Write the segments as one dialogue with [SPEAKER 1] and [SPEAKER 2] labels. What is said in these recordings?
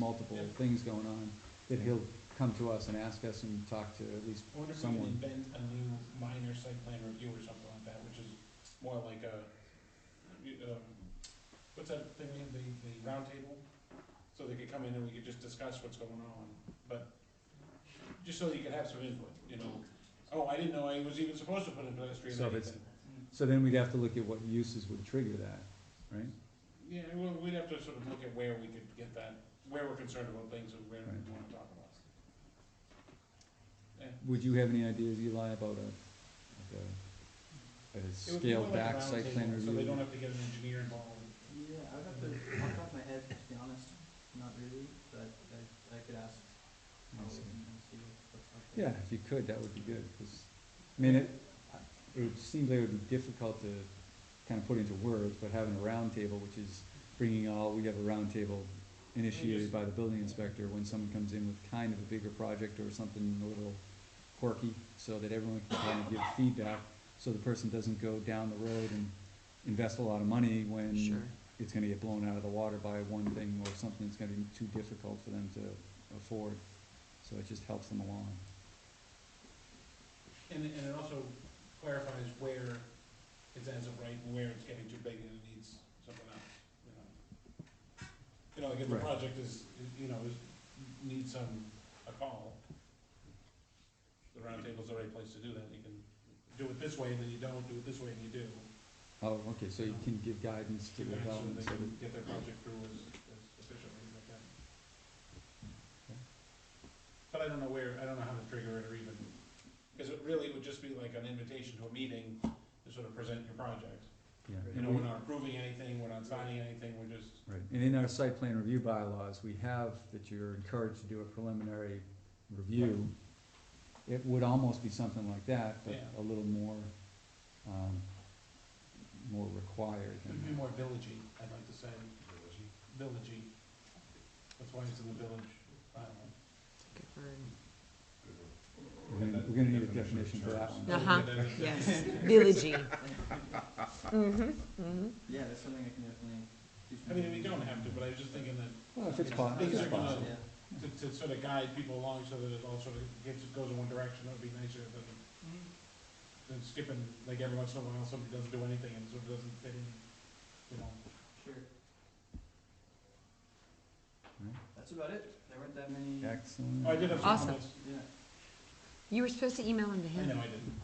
[SPEAKER 1] multiple
[SPEAKER 2] Yeah.
[SPEAKER 1] things going on, that he'll come to us and ask us and talk to at least
[SPEAKER 2] I wonder if we could
[SPEAKER 1] Someone.
[SPEAKER 2] invent a new minor site plan review or something like that, which is more like a, you- um, what's that thing, the, the round table? So they could come in and we could just discuss what's going on, but, just so you could have some input, you know? Oh, I didn't know I was even supposed to put a pedestrian
[SPEAKER 1] So
[SPEAKER 2] or
[SPEAKER 1] if it's-
[SPEAKER 2] anything.
[SPEAKER 1] So then we'd have to look at what uses would trigger that, right?
[SPEAKER 2] Yeah, well, we'd have to sort of look at where we could get that, where we're concerned about things and where we
[SPEAKER 1] Right.
[SPEAKER 2] wanna talk about.
[SPEAKER 1] Would you have any ideas, Eli, about a, like a, a
[SPEAKER 2] It would be
[SPEAKER 1] scaled
[SPEAKER 2] more like a
[SPEAKER 1] back
[SPEAKER 2] round
[SPEAKER 1] site plan
[SPEAKER 2] table, So they
[SPEAKER 1] review?
[SPEAKER 2] don't have to get an engineer involved.
[SPEAKER 3] Yeah, I'd have to, off the top of my head, to be honest, not really, but I, I could ask
[SPEAKER 1] I
[SPEAKER 3] Molly
[SPEAKER 1] see.
[SPEAKER 3] and and see what's up
[SPEAKER 1] Yeah,
[SPEAKER 3] there.
[SPEAKER 1] if you could, that would be good, 'cause, I mean, it, it would seem like it would be difficult to kind of put into words, but having a roundtable, which is bringing all, we have a roundtable initiated by the building inspector when someone comes in with kind of a bigger project or something a little quirky, so that everyone can kind of give feedback, so the person doesn't go down the road and invest a lot of money when it's gonna get blown out of the water by one thing or something that's gonna be too difficult for them to afford, so it just helps them along.
[SPEAKER 2] And, it- and it also clarifies where it's as of right and where it's getting too big and it needs something else, you know? You know, like if the
[SPEAKER 1] Right.
[SPEAKER 2] project is, you know, is, needs some, a call, the roundtable's the right place to do that, you can do it this way and then you don't, do it this way and you do.
[SPEAKER 1] Oh, okay, so you can give guidance to
[SPEAKER 2] So
[SPEAKER 1] the development,
[SPEAKER 2] they
[SPEAKER 1] so
[SPEAKER 2] can get their project through as, as efficiently as they can.
[SPEAKER 1] Okay.
[SPEAKER 2] But I don't know where, I don't know how to trigger it or even, because it really would just be like an invitation to a meeting to sort of present your project.
[SPEAKER 1] yeah.
[SPEAKER 2] You know, we're not approving anything, we're not signing anything, we're just,
[SPEAKER 1] Right, and in our site plan review bylaws, we have that you're encouraged to do a preliminary review. It would almost be something like that, but
[SPEAKER 2] Yeah.
[SPEAKER 1] a little more, um, more required than
[SPEAKER 2] it'd be more villagey, I'd like to say. Villagey. Villagey. That's why it's in the village. bylaw.
[SPEAKER 1] We're gonna, we're gonna need a definition for that one.
[SPEAKER 2] We'll
[SPEAKER 4] Uh-huh.
[SPEAKER 2] get that in.
[SPEAKER 4] Yes, Mm-hmm, villagey.
[SPEAKER 3] Yeah, that's something I can definitely.
[SPEAKER 2] I
[SPEAKER 3] do some
[SPEAKER 2] mean, we
[SPEAKER 3] research
[SPEAKER 2] don't
[SPEAKER 3] on.
[SPEAKER 2] have to, but I was just thinking that
[SPEAKER 1] Well, if it's
[SPEAKER 2] Yeah.
[SPEAKER 1] possible,
[SPEAKER 2] Things
[SPEAKER 1] it's
[SPEAKER 2] are gonna-
[SPEAKER 1] possible.
[SPEAKER 3] Yeah.
[SPEAKER 2] to, to sort of guide people along so that it all sort of gets, goes in one direction, that'd be nicer than, than skipping, like every once in a while, somebody doesn't do anything and sort of doesn't fit in, you know.
[SPEAKER 3] Sure.
[SPEAKER 1] Right.
[SPEAKER 3] That's about it. There weren't that many.
[SPEAKER 1] Excellent.
[SPEAKER 2] Oh, I did have some
[SPEAKER 4] Awesome.
[SPEAKER 2] comments,
[SPEAKER 3] Yeah.
[SPEAKER 4] You were supposed to email him to
[SPEAKER 2] I
[SPEAKER 4] him.
[SPEAKER 2] know I didn't.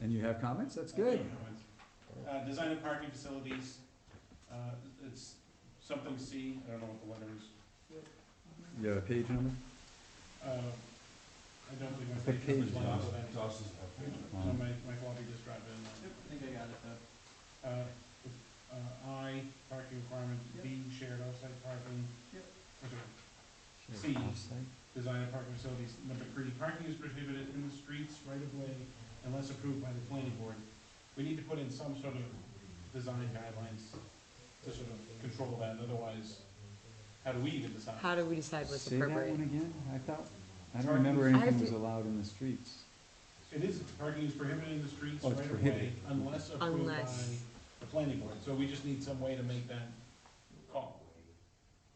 [SPEAKER 1] And you have comments, that's
[SPEAKER 2] I do have
[SPEAKER 1] good.
[SPEAKER 2] comments. Uh, design of parking facilities, uh, it's something C, I don't know what the letter is,
[SPEAKER 1] You have a page number?
[SPEAKER 2] uh, I don't believe my
[SPEAKER 1] What
[SPEAKER 2] page
[SPEAKER 1] page
[SPEAKER 2] number's one
[SPEAKER 1] is
[SPEAKER 2] off
[SPEAKER 1] it?
[SPEAKER 2] of that. No, my, my floppy disk drive is not.
[SPEAKER 3] Yep, I think I got it
[SPEAKER 2] Uh,
[SPEAKER 3] though.
[SPEAKER 2] uh, I, parking requirement, B, shared offsite parking.
[SPEAKER 3] Yep.
[SPEAKER 2] Okay.
[SPEAKER 1] Sure,
[SPEAKER 2] C.
[SPEAKER 1] offsite.
[SPEAKER 2] Design of parking facilities, number three, parking is prohibited in the streets right of way unless approved by the planning board. We need to put in some sort of design guidelines to sort of control that, otherwise, how do we even decide?
[SPEAKER 4] How do we decide what's
[SPEAKER 1] Say that one
[SPEAKER 4] appropriate?
[SPEAKER 1] again, I thought, I don't
[SPEAKER 2] Sorry.
[SPEAKER 1] remember
[SPEAKER 4] I have
[SPEAKER 1] anything was
[SPEAKER 4] to-
[SPEAKER 1] allowed in the streets.
[SPEAKER 2] It is, parking is prohibited in the streets
[SPEAKER 1] Oh, it's
[SPEAKER 2] right of way
[SPEAKER 1] prohibited.
[SPEAKER 2] unless approved by
[SPEAKER 4] Unless.
[SPEAKER 2] the planning board, so we just need some way to make that call.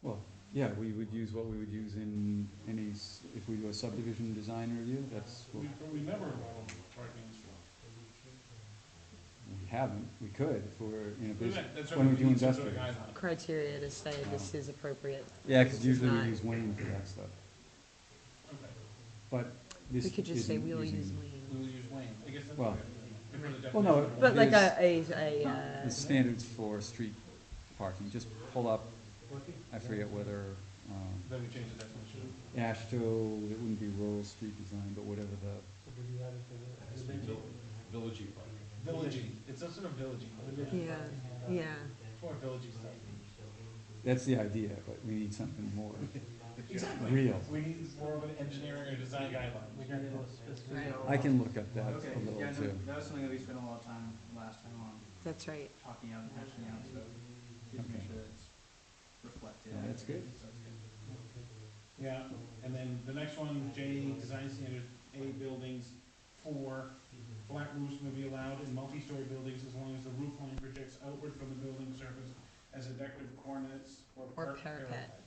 [SPEAKER 1] Well, yeah, we would use what we would use in any, s- if we do a subdivision design review, that's what
[SPEAKER 2] We, we never allow parking in streets.
[SPEAKER 1] we haven't, we could, if we're in a
[SPEAKER 2] We
[SPEAKER 1] business.
[SPEAKER 2] met- That's
[SPEAKER 1] when
[SPEAKER 2] what
[SPEAKER 1] we
[SPEAKER 2] we
[SPEAKER 1] do
[SPEAKER 2] need some sort of
[SPEAKER 1] investment.
[SPEAKER 2] guideline.
[SPEAKER 4] Criteria to say this is appropriate.
[SPEAKER 1] Yeah, cause usually we
[SPEAKER 4] Not-
[SPEAKER 1] use Wayne for that stuff,
[SPEAKER 2] Okay.
[SPEAKER 1] but this
[SPEAKER 4] We
[SPEAKER 1] isn't
[SPEAKER 4] could just say
[SPEAKER 1] using.
[SPEAKER 4] we'll use
[SPEAKER 2] We
[SPEAKER 4] Wayne.
[SPEAKER 2] will use Wayne, I guess that's.
[SPEAKER 1] Well-
[SPEAKER 2] if we're the
[SPEAKER 1] Well, no,
[SPEAKER 2] definition of
[SPEAKER 4] But like
[SPEAKER 1] Here's-
[SPEAKER 4] a, a, a,
[SPEAKER 1] The
[SPEAKER 4] uh,
[SPEAKER 1] standards for street parking, just pull up,
[SPEAKER 2] Wayne.
[SPEAKER 1] I forget whether, um,
[SPEAKER 2] Then we change the definition.
[SPEAKER 1] Ashto, it wouldn't be rural street design, but whatever the,
[SPEAKER 2] Villagey. Villagey, it's a sort of villagey.
[SPEAKER 4] yeah, yeah.
[SPEAKER 2] Or villagey stuff.
[SPEAKER 1] that's the idea, but we need something more
[SPEAKER 2] Exactly.
[SPEAKER 1] real.
[SPEAKER 2] We need more of an engineering or design guideline. We can-
[SPEAKER 1] I can look up that
[SPEAKER 3] Okay,
[SPEAKER 1] a
[SPEAKER 3] yeah,
[SPEAKER 1] little
[SPEAKER 3] no,
[SPEAKER 1] too.
[SPEAKER 3] that was something that we spent a lot of time last time on,
[SPEAKER 4] That's right.
[SPEAKER 3] talking out and hashing out, so just make
[SPEAKER 1] Okay.
[SPEAKER 3] sure it's reflected.
[SPEAKER 1] Yeah, that's good.
[SPEAKER 3] So it's good.
[SPEAKER 2] Yeah, and then the next one, J, design standard, A, buildings, four, flat roofs may be allowed in multi-story buildings as long as the roof line projects outward from the building surface as a decorative cornice or
[SPEAKER 4] Or
[SPEAKER 2] par-
[SPEAKER 4] parapet.